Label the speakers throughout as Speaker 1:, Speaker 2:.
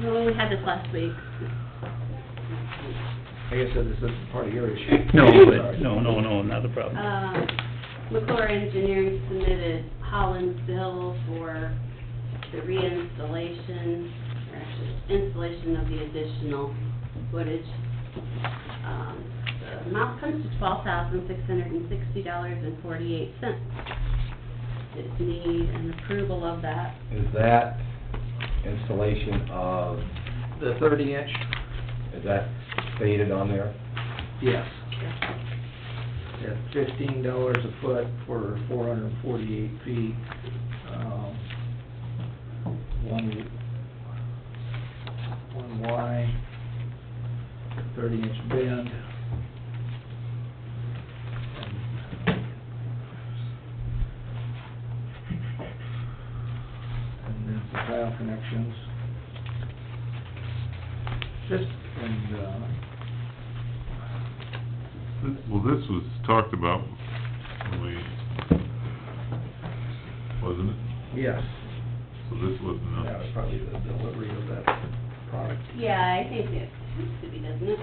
Speaker 1: No, we had this last week.
Speaker 2: I guess this isn't part of your issue.
Speaker 3: No,
Speaker 2: Sorry.
Speaker 3: but, no, no, no, not a problem.
Speaker 1: Uh, McClure Engineering submitted Holland's bill for the reinstallation, or actually installation of the additional footage. Um, The amount comes to twelve thousand six hundred and sixty dollars and forty-eight cents. Just need an approval of that.
Speaker 4: Is that installation of,
Speaker 2: The thirty inch?
Speaker 4: is that stated on there?
Speaker 2: Yes. At fifteen dollars a foot for four hundred and forty-eight feet. Um, One, one Y, thirty inch bend. And then the tile connections. Just, and, uh,
Speaker 5: Well, this was talked about when we, wasn't it?
Speaker 2: Yes,
Speaker 5: So this wasn't
Speaker 2: that was
Speaker 5: a,
Speaker 2: probably the delivery of that product.
Speaker 1: Yeah, I think it has to be, doesn't it?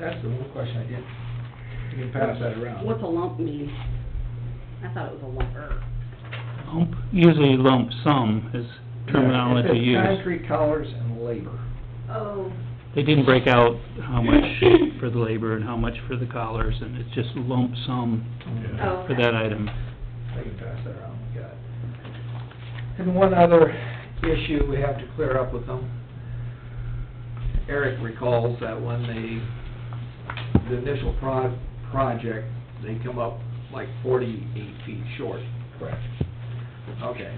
Speaker 2: That's the one question I didn't, you can pass that around.
Speaker 1: What's a lump mean? I thought it was a lumper.
Speaker 3: Lump- Usually lump sum is terminology
Speaker 2: It says
Speaker 3: used.
Speaker 2: Concrete colors and labor.
Speaker 1: Oh.
Speaker 3: They didn't break out how much for the labor and how much for the collars, and it's just lump sum
Speaker 5: Yeah.
Speaker 1: Oh,
Speaker 3: for
Speaker 1: okay.
Speaker 3: that item.
Speaker 2: I can pass that around, we got it. And one other issue we have to clear up with them. Eric recalls that when they, the initial pro- project, they come up like forty-eight feet short.
Speaker 4: Correct.
Speaker 2: Okay.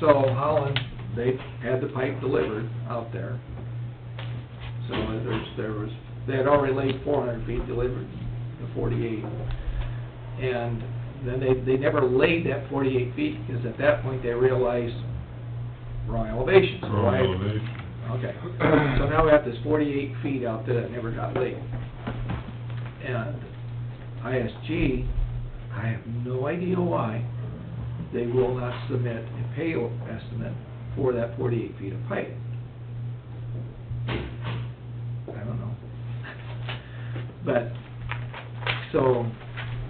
Speaker 2: So Holland, they had the pipe delivered out there. So there's, there was, they had already laid four hundred feet delivered, the forty-eight. And then they, they never laid that forty-eight feet, because at that point, they realized wrong elevation. So
Speaker 5: wrong
Speaker 2: I-
Speaker 5: elevation.
Speaker 2: Okay, so now we have this forty-eight feet out there that never got laid. And ISG, I have no idea why, they will not submit a pay estimate for that forty-eight feet of pipe. I don't know. But, so,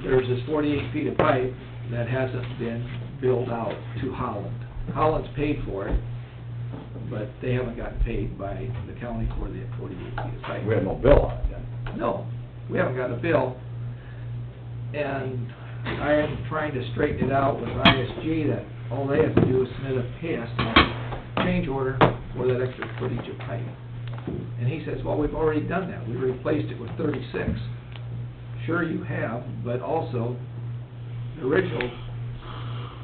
Speaker 2: there's this forty-eight feet of pipe that hasn't been built out to Holland. Holland's paid for it, but they haven't gotten paid by the county for the forty-eight feet of pipe.
Speaker 4: We have no bill on it then.
Speaker 2: No, we haven't got a bill. And I am trying to straighten it out with ISG that all they have to do is submit a pay estimate, change order for that extra footage of pipe. And he says, well, we've already done that, we replaced it with thirty-six. Sure you have, but also, the original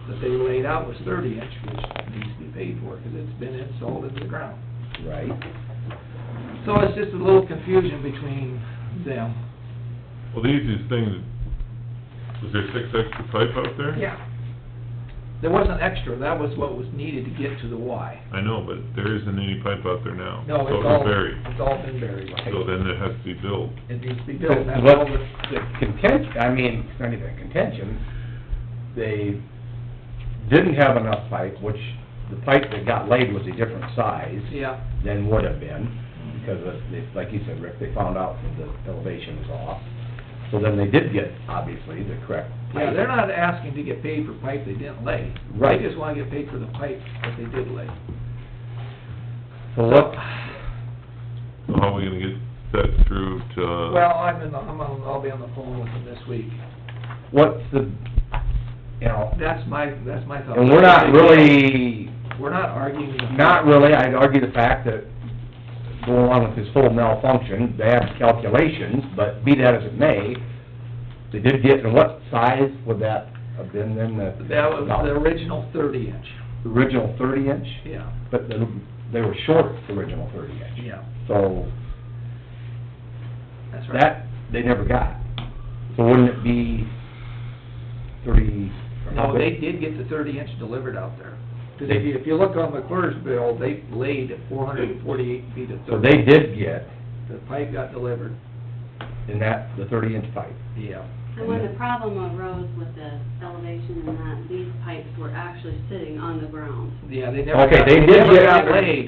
Speaker 2: that they laid out was thirty inch, which needs to be paid for, because it's been installed into the ground.
Speaker 4: Right.
Speaker 2: So it's just a little confusion between them.
Speaker 5: Well, the easiest thing, was there six extra pipe out there?
Speaker 2: Yeah. There wasn't extra, that was what was needed to get to the Y.
Speaker 5: I know, but there isn't any pipe out there now.
Speaker 2: No, it's
Speaker 5: So
Speaker 2: all,
Speaker 5: buried.
Speaker 2: it's all been buried.
Speaker 5: So then it has to be built.
Speaker 2: It needs to be built, that's all
Speaker 4: But
Speaker 2: the,
Speaker 4: the contention, I mean, it's not even a contention, they didn't have enough pipe, which the pipe that got laid was a different size
Speaker 2: yeah.
Speaker 4: than would have been, because of, they- like you said, Rick, they found out that the elevation was off. So then they did get, obviously, the correct pipe.
Speaker 2: Yeah, they're not asking to get paid for pipe they didn't lay.
Speaker 4: Right.
Speaker 2: They just wanna get paid for the pipe that they did lay.
Speaker 4: So what,
Speaker 5: So how are we gonna get that through to? uh,
Speaker 2: Well, I'm in the, I'm on, I'll be on the phone with them this week.
Speaker 4: what's the, you know,
Speaker 2: That's my, that's my thought.
Speaker 4: and we're not really
Speaker 2: We're not arguing. the-
Speaker 4: Not really, I'd argue the fact that, go along with this whole malfunction, bad calculations, but be that as it may, they did get, and what size would that have been then, the?
Speaker 2: That was the original thirty inch,
Speaker 4: the Original thirty inch,
Speaker 2: yeah,
Speaker 4: but they, they were short the original thirty inch.
Speaker 2: yeah,
Speaker 4: So,
Speaker 2: that's right.
Speaker 4: that, they never got. So wouldn't it be thirty? or how
Speaker 2: No,
Speaker 4: big?
Speaker 2: they did get the thirty inch delivered out there. Because if you, if you look on McClure's bill, they laid four hundred and forty-eight feet of
Speaker 4: So
Speaker 2: thirty.
Speaker 4: they did get,
Speaker 2: The pipe got delivered,
Speaker 4: in that, the thirty inch pipe.
Speaker 2: yeah.
Speaker 1: And when the problem arose with the elevation and that, these pipes were actually sitting on the ground.
Speaker 2: Yeah, they never
Speaker 4: Okay,
Speaker 2: got,
Speaker 4: they
Speaker 2: they
Speaker 4: did
Speaker 2: never
Speaker 4: get
Speaker 2: got
Speaker 4: their-
Speaker 2: laid.